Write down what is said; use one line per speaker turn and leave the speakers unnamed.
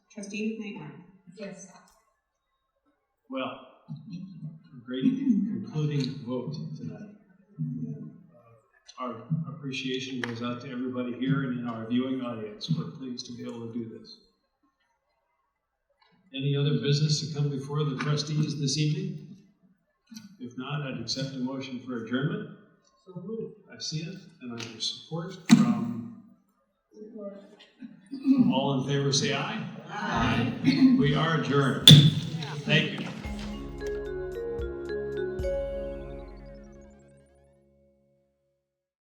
Trustee Connor.
Yes.
Well, a great concluding vote tonight. Uh, Our appreciation goes out to everybody here and in our viewing audience. We're pleased to be able to do this. Any other business to come before the trustees this evening? If not, I'd accept a motion for adjournment. I see it, and I hear support from, all in favor, say aye. Aye. We are adjourned. Thank you.